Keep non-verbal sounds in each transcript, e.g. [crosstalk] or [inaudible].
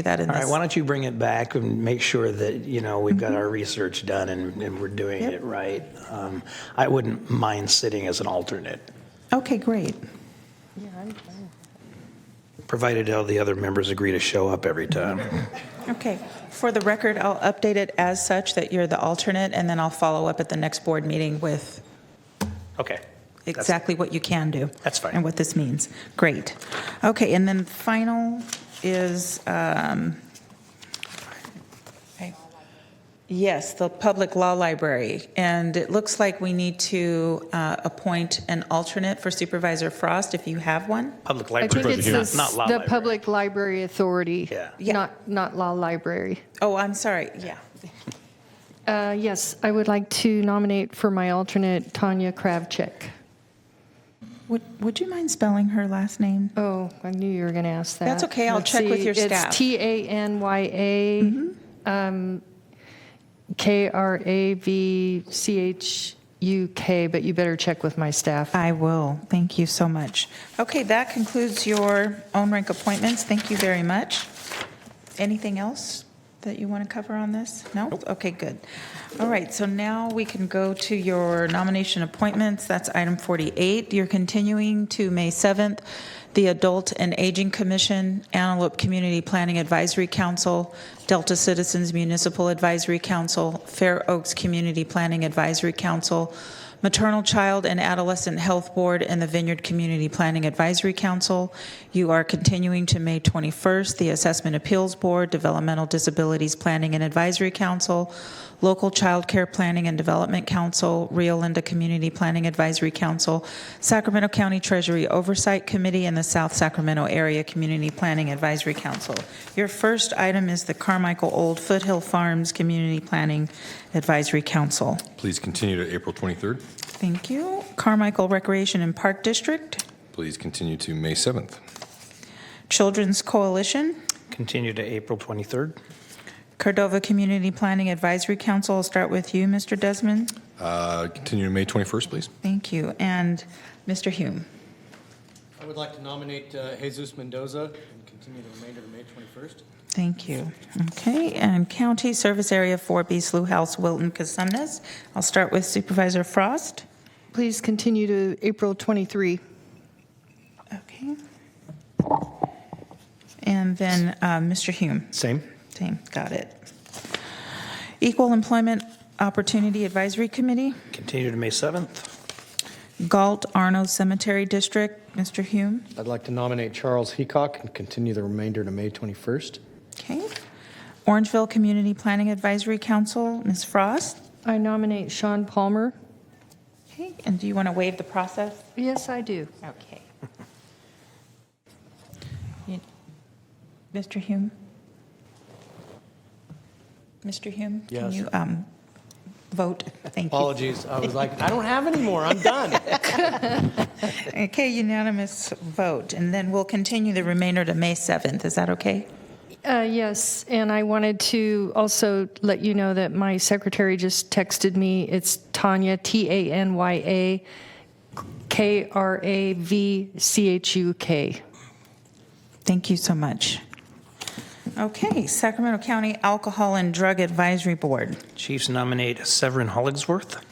do that in All right, this. why don't you bring it back and make sure that, you know, we've got our research done and, and we're doing it right. Um, I wouldn't mind sitting as an alternate, Okay, great. provided all the other members agree to show up every time. Okay. For the record, I'll update it as such that you're the alternate, and then I'll follow up at the next board meeting with [laughs] Okay. exactly what you can do. That's fine. And what this means. Great. Okay, and then final is, um, okay. yes, the Public Law Library. And it looks like we need to uh, appoint an alternate for Supervisor Frost, if you have one. Public I think library, it's the, not law the library. Public Library Authority. Yeah. Yeah. Not, not Law Library. Oh, I'm sorry, yeah. Uh, Yes, I would like to nominate for my alternate Tanya Kravchuk. Would, would you mind spelling her last name? Oh, I knew you were going to ask that. That's okay, I'll Let's check with see, your staff. Mm-hmm. It's T-A-N-Y-A, um, K-R-A-V-C-H-U-K, but you better check with my staff. I will. Thank you so much. Okay, that concludes your own rank appointments. Thank you very much. Anything else that you want to cover on this? No? Okay, good. All right, so now we can go to your nomination appointments. That's item 48. You're continuing to May 7th, the Adult and Aging Commission, Antelope Community Planning Advisory Council, Delta Citizens Municipal Advisory Council, Fair Oaks Community Planning Advisory Council, Maternal Child and Adolescent Health Board and the Vineyard Community Planning Advisory Council. You are continuing to May 21st, the Assessment Appeals Board, Developmental Disabilities Planning and Advisory Council, Local Child Care Planning and Development Council, Rio Linda Community Planning Advisory Council, Sacramento County Treasury Oversight Committee, and the South Sacramento Area Community Planning Advisory Council. Your first item is the Carmichael Old Foothill Farms Community Planning Advisory Council. Please continue to April 23rd. Thank you. Carmichael Recreation and Park District, Please continue to May 7th. Children's Coalition, Continue to April 23rd. Cordova Community Planning Advisory Council. I'll start with you, Mr. Desmond. Uh, Continue to May 21st, please. Thank you. And Mr. Hume. I would like to nominate uh, Jesus Mendoza and continue the remainder to May 21st. Thank you. Okay, and County Service Area 4B Slough House, Wilton, Casumnes. I'll start with Supervisor Frost. Please continue to April 23. Okay. And then uh, Mr. Hume. Same. Same, got it. Equal Employment Opportunity Advisory Committee. Continue to May 7th. Galt Arno Cemetery District, Mr. Hume. I'd like to nominate Charles Heacock and continue the remainder to May 21st. Okay. Orangeville Community Planning Advisory Council, Ms. Frost. I nominate Sean Palmer. Okay, and do you want to waive the process? Yes, I do. Okay. You- Mr. Hume? Mr. Hume? Can Yes. you um, vote? Thank you. Apologies, I was like, I don't have any more, I'm done. [laughs] Okay, unanimous vote, and then we'll continue the remainder to May 7th. Is that okay? Uh, Yes, and I wanted to also let you know that my secretary just texted me. It's Tanya, T-A-N-Y-A, K-R-A-V-C-H-U-K. Thank you so much. Okay, Sacramento County Alcohol and Drug Advisory Board. Chiefs nominate Severin Hollingsworth.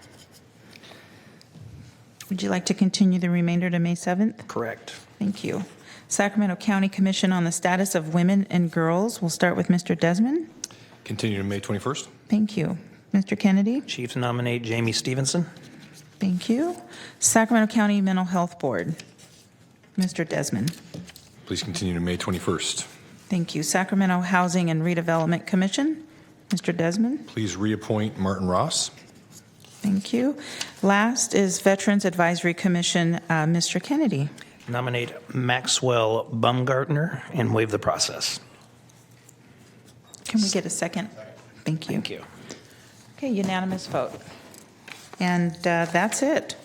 Would you like to continue the remainder to May 7th? Correct. Thank you. Sacramento County Commission on the Status of Women and Girls. We'll start with Mr. Desmond. Continue to May 21st. Thank you. Mr. Kennedy? Chiefs nominate Jamie Stevenson. Thank you. Sacramento County Mental Health Board. Mr. Desmond? Please continue to May 21st. Thank you. Sacramento Housing and Redevelopment Commission. Mr. Desmond? Please reappoint Martin Ross. Thank you. Last is Veterans Advisory Commission, uh, Mr. Kennedy. Nominate Maxwell Baumgartner and waive the process. Can we get a second? Thank you. Thank you. Okay, unanimous vote. And uh, that's it.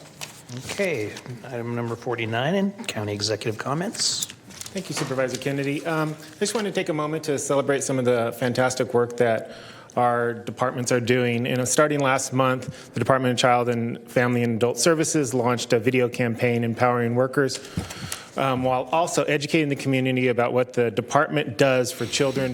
Okay, item number 49, and county executive comments. Thank you, Supervisor Kennedy. Um, I just wanted to take a moment to celebrate some of the fantastic work that our departments are doing. And uh, starting last month, the Department of Child and Family and Adult Services launched a video campaign empowering workers um, while also educating the community about what the department does for children,